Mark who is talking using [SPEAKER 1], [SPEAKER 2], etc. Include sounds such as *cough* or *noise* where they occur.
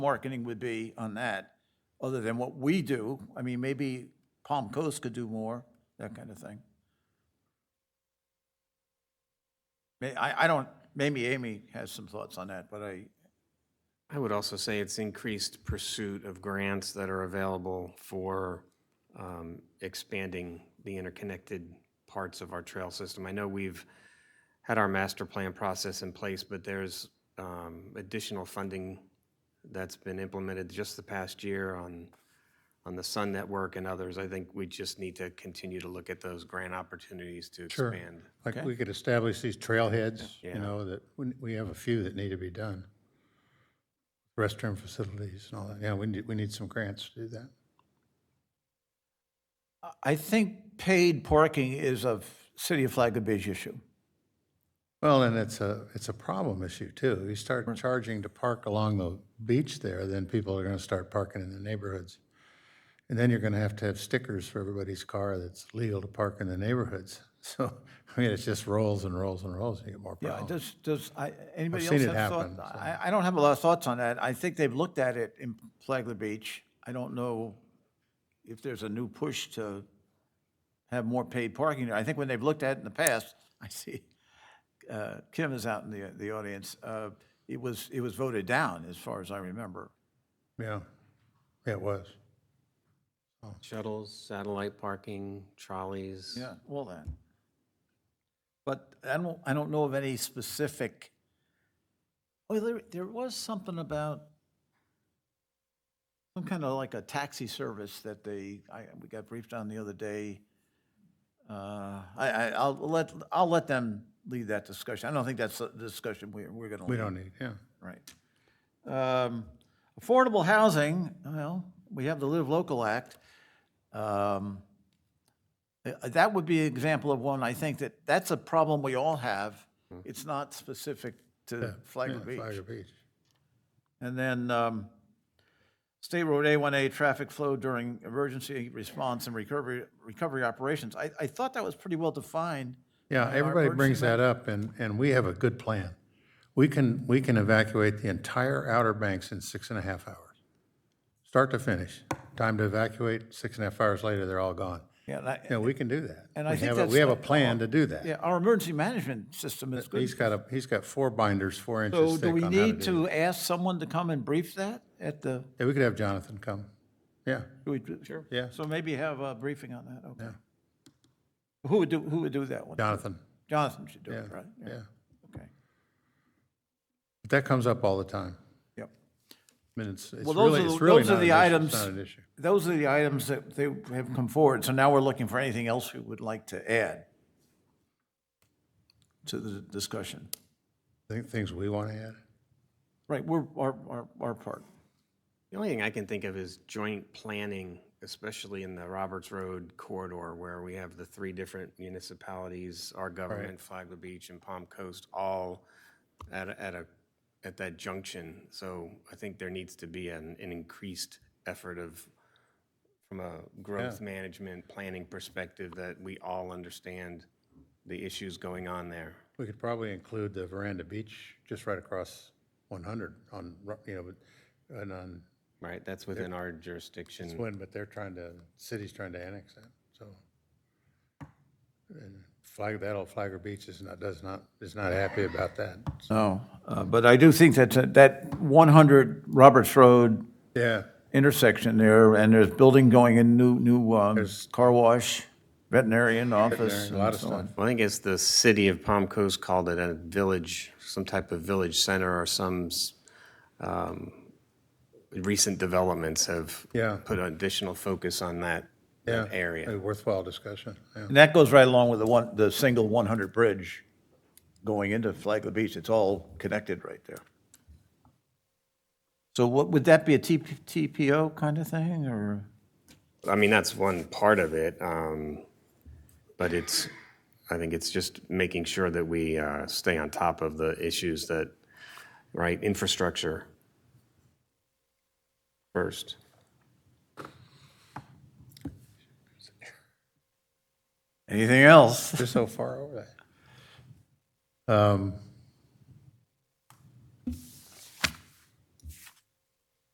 [SPEAKER 1] marketing would be on that, other than what we do. I mean, maybe Palm Coast could do more, that kind of thing. May, I, I don't, maybe Amy has some thoughts on that, but I,
[SPEAKER 2] I would also say it's increased pursuit of grants that are available for um, expanding the interconnected parts of our trail system. I know we've had our master plan process in place, but there's um, additional funding that's been implemented just the past year on, on the Sun Network and others. I think we just need to continue to look at those grant opportunities to expand.
[SPEAKER 3] Like, we could establish these trailheads, you know, that, we- we have a few that need to be done. Restroom facilities and all that, yeah, we need, we need some grants to do that.
[SPEAKER 1] I think paid parking is a City of Flagler's issue.
[SPEAKER 3] Well, and it's a, it's a problem issue too. You start charging to park along the beach there, then people are gonna start parking in the neighborhoods. And then you're gonna have to have stickers for everybody's car that's legal to park in the neighborhoods. *laughs* So, I mean, it just rolls and rolls and rolls, and you get more
[SPEAKER 1] Yeah,
[SPEAKER 3] problems.
[SPEAKER 1] does, does, I, anybody
[SPEAKER 3] seen
[SPEAKER 1] else
[SPEAKER 3] it
[SPEAKER 1] have thought?
[SPEAKER 3] happen, so.
[SPEAKER 1] I, I don't have a lot of thoughts on that. I think they've looked at it in Flagler Beach. I don't know if there's a new push to have more paid parking. there. I think when they've looked at it in the past, *laughs* I see, uh, Kim is out in the, the audience, uh, it was, it was voted down, as far as I remember.
[SPEAKER 3] Yeah, yeah, it was.
[SPEAKER 2] Shuttles, satellite parking, trolleys.
[SPEAKER 1] Yeah, all that. But I don't, I don't know of any specific, oh, there, there was something about some kind of like a taxi service that they, I, we got briefed on the other day. Uh, I, I, I'll let, I'll let them lead that discussion. I don't think that's a discussion we're, we're gonna.
[SPEAKER 3] We
[SPEAKER 1] lead.
[SPEAKER 3] don't need, yeah.
[SPEAKER 1] Right. Um, Affordable housing, well, we have the Live Local Act. Um, uh, That would be an example of one, I think, that that's a problem we all have. It's not specific to Flagler
[SPEAKER 3] Hmm. Yeah,
[SPEAKER 1] Beach.
[SPEAKER 3] Flagler Beach.
[SPEAKER 1] And then um, State Road A1A traffic flow during emergency response and recovery, recovery operations. I, I thought that was pretty well defined.
[SPEAKER 3] Yeah, everybody brings that up, and, and we have a good plan. We can, we can evacuate the entire Outer Banks in six and a half hours, start to finish. Time to evacuate, six and a half hours later, they're all gone.
[SPEAKER 1] Yeah, and I-
[SPEAKER 3] Yeah, we can do that.
[SPEAKER 1] And I
[SPEAKER 3] We
[SPEAKER 1] think
[SPEAKER 3] have a-
[SPEAKER 1] that's
[SPEAKER 3] We have a
[SPEAKER 1] the-
[SPEAKER 3] plan to do that.
[SPEAKER 1] Yeah, our emergency management system is good.
[SPEAKER 3] He's got a, he's got four binders, four
[SPEAKER 1] So
[SPEAKER 3] inches
[SPEAKER 1] do
[SPEAKER 3] thick
[SPEAKER 1] we
[SPEAKER 3] on how to
[SPEAKER 1] need
[SPEAKER 3] do that.
[SPEAKER 1] to ask someone to come and brief that at the,
[SPEAKER 3] Yeah, we could have Jonathan come. Yeah,
[SPEAKER 1] do we? Sure.
[SPEAKER 3] Yeah.
[SPEAKER 1] So maybe have a briefing on that, okay. Who would do, who would do that one?
[SPEAKER 3] Jonathan,
[SPEAKER 1] Jonathan should do
[SPEAKER 3] yeah,
[SPEAKER 1] it, right?
[SPEAKER 3] yeah.
[SPEAKER 1] Okay,
[SPEAKER 3] But That comes up all the time.
[SPEAKER 1] yep.
[SPEAKER 3] I mean, it's, it's
[SPEAKER 1] Well, those
[SPEAKER 3] really,
[SPEAKER 1] are the-
[SPEAKER 3] it's really
[SPEAKER 1] those are
[SPEAKER 3] not
[SPEAKER 1] the
[SPEAKER 3] an issue. It's
[SPEAKER 1] items-
[SPEAKER 3] not an issue.
[SPEAKER 1] Those are the items that they have come forward, so now we're looking for anything else we would like to add to the discussion.
[SPEAKER 3] Think- Things we want to add.
[SPEAKER 1] Right, we're, our, our, our part.
[SPEAKER 2] The only thing I can think of is joint planning, especially in the Roberts Road corridor where we have the three different municipalities, our government, Flagler Beach and Palm Coast, all at, a- at a, at that junction. So I think there needs to be an, an increased effort of, from a growth management, planning perspective, that we all understand the issues going on there.
[SPEAKER 3] We could probably include the Veranda Beach, just right across 100 on, Ru- you know, but- and on
[SPEAKER 2] Right, that's within our jurisdiction.
[SPEAKER 3] Swin, but they're trying to, city's trying to annex that, so. And Flag, that old Flagler Beach is not, does not, is not happy about that.
[SPEAKER 1] No, uh, but I do think that, that 100 Roberts Road
[SPEAKER 3] Yeah,
[SPEAKER 1] intersection there, and there's building going in, new, new um, car wash, veterinarian office.
[SPEAKER 3] a lot
[SPEAKER 1] and
[SPEAKER 3] of
[SPEAKER 1] so
[SPEAKER 3] stuff.
[SPEAKER 1] on.
[SPEAKER 2] Well, I think it's the city of Palm Coast called it a village, some type of village center or some s- um, recent developments have
[SPEAKER 3] Yeah.
[SPEAKER 2] put additional focus on that,
[SPEAKER 3] yeah.
[SPEAKER 2] that area.
[SPEAKER 3] A worthwhile discussion, yeah.
[SPEAKER 1] And that goes right along with the one, the single 100 bridge going into Flagler Beach. It's all connected right there. So what, would that be a TP TPO kind of thing, or?
[SPEAKER 2] I mean, that's one part of it, um, but it's, I think it's just making sure that we uh, stay on top of the issues that, right, infrastructure first.
[SPEAKER 1] Anything else?
[SPEAKER 3] They're so far over that. Um,